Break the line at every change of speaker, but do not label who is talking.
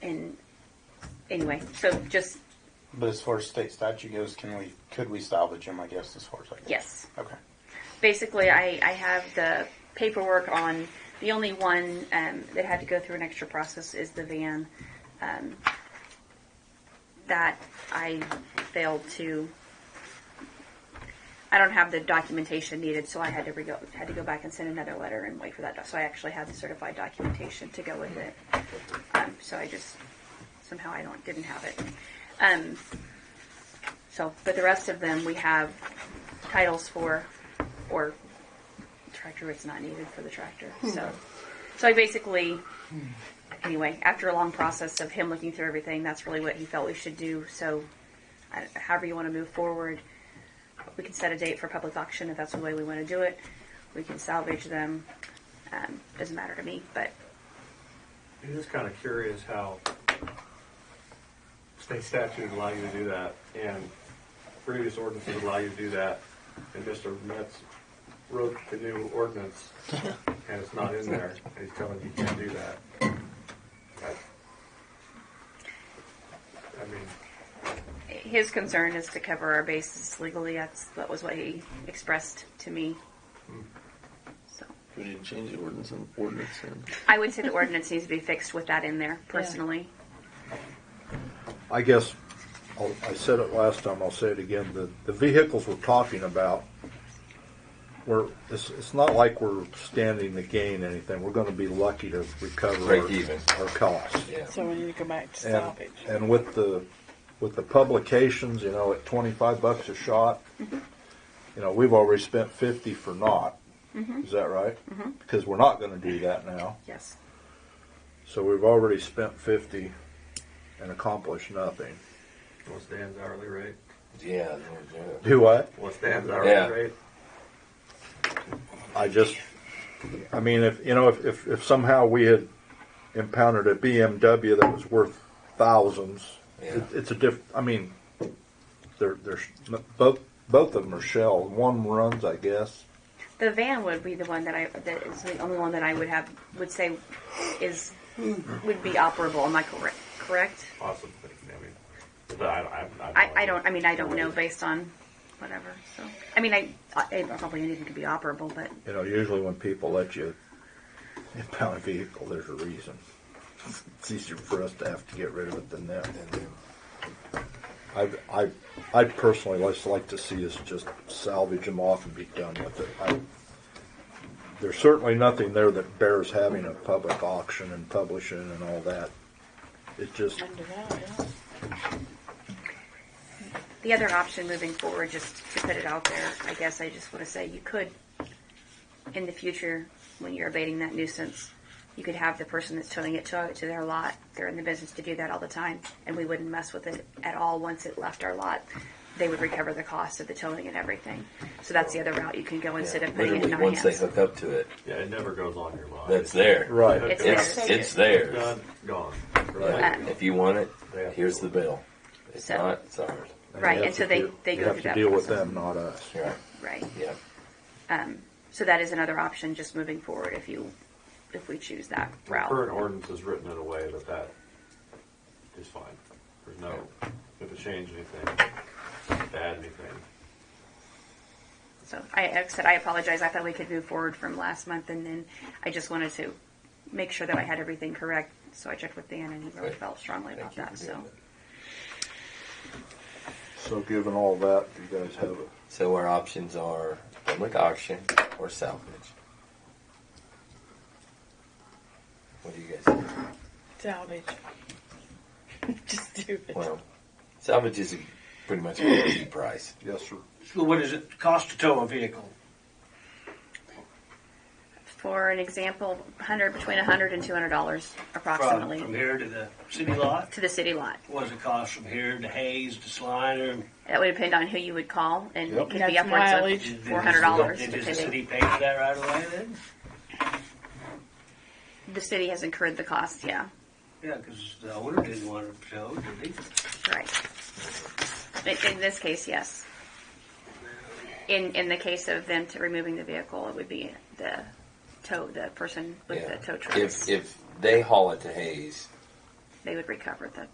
anyway, so just,
But as far as state statute goes, can we, could we salvage them, I guess, as far as I can?
yes.
Okay.
Basically, I, I have the paperwork on, the only one um, that had to go through an extra process is the van. um, That I failed to, I don't have the documentation needed, so I had to rego, had to go back and send another letter and wait for that. doc- So I actually had the certified documentation to go with it. Um, So I just, somehow I don't, didn't have it. Um, So, but the rest of them, we have titles for, or tractor it's not needed for the tractor. So, so I basically, anyway, after a long process of him looking through everything, that's really what he felt we should do. So, I- however you want to move forward, we can set a date for public auction if that's the way we want to do it. We can salvage them. Um, doesn't matter to me, but
I'm just kind of curious how state statute would allow you to do that, and previous ordinances would allow you to do that, and Mr. Metz wrote the new ordinance, and it's not in there, and he's telling you you can't do that. I- I mean,
his concern is to cover our bases legally. That's that was what he expressed to me. So.
We need to change the ordinance and ordinance and
I would say the ordinance needs to be fixed with that in there, personally.
I guess, I'll- I said it last time, I'll say it again, the, the vehicles we're talking about, we're, it's, it's not like we're standing to gain anything, we're gonna be lucky to recover
Break
our-
even.
our costs.
So we need to go back to
And,
salvage.
and with the, with the publications, you know, at twenty-five bucks a shot, you know, we've already spent fifty for naught. Is that right? Because we're not gonna do that now.
Yes.
So we've already spent fifty and accomplished nothing.
what's Dan's hourly rate?
Yeah, yeah, yeah.
Do what?
What's Dan's
Yeah.
hourly rate?
I just, I mean, if, you know, if, if, if somehow we had impounded a BMW that was worth thousands, it,
Yeah.
it's a diff, I mean, they're, they're, sh- both, both of them are shell. One runs, I guess.
The van would be the one that I, that is the only one that I would have, would say is, would be operable, am I correct? Correct?
Possibly, I mean, but I, I.
I, I don't, I mean, I don't know based on whatever, so. I mean, I, I probably anything could be operable, but
You know, usually when people let you impound a vehicle, there's a reason. It's easier for us to have to get rid of it than them. I, I, I personally just like to see us just salvage them off and be done with it. I, there's certainly nothing there that bears having a public auction and publishing and all that. It just,
Under that, yeah.
the other option moving forward, just to put it out there, I guess I just want to say you could, in the future, when you're abating that nuisance, you could have the person that's towing it tow it to their lot. They're in the business to do that all the time, and we wouldn't mess with it at all once it left our lot. They would recover the cost of the towing and everything. So that's the other route you can go instead of putting it in
Literally,
our
once they
hands.
hook up to it,
Yeah, it never goes on your lot.
that's there.
right.
It's
It's,
theirs.
it's theirs.
Done, gone,
Yeah.
right?
Um,
If you want it, here's the bill. It's
So-
not, it's ours.
And
Right,
you have
and so
to
they-
deal-
they
you
go
have
through
to
that
deal with
process.
them, not us.
Right,
Right.
yeah.
So that is another option just moving forward if you, if we choose that
The
route.
Current ordinance is written in a way that that is fine. There's no, if it change anything, to add anything.
So I, like I said, I apologize. I thought we could move forward from last month, and then I just wanted to make sure that I had everything correct. So I checked with Dan, and he really
Right.
felt strongly about
Thank you
that.
for doing
So
that.
So given all that, you guys have a
So our options are public auction or salvage. What do you guys think?
Salvage. Just do it.
Well, salvage is pretty much a guaranteed price.
Yes, sir.
So what does it cost to tow a vehicle?
for an example, 100 between 100 and 200 dollars
From,
approximately
from here to the city lot?
to the city lot.
What does it cost from here to Hayes to Sliner?
That would depend on who you would call, and
Yep.
it could
That's
be upwards
mileage.
of 400 dollars.
Did
The
the city pay for that right away then?
city has incurred the cost. Yeah,
Yeah, because the owner didn't want it towed, did he?
right. In, in this case, yes. In in the case of them to removing the vehicle, it would be the tow the person with
Yeah.
the tow truck.
If, if they haul it to Hayes,
they would recover the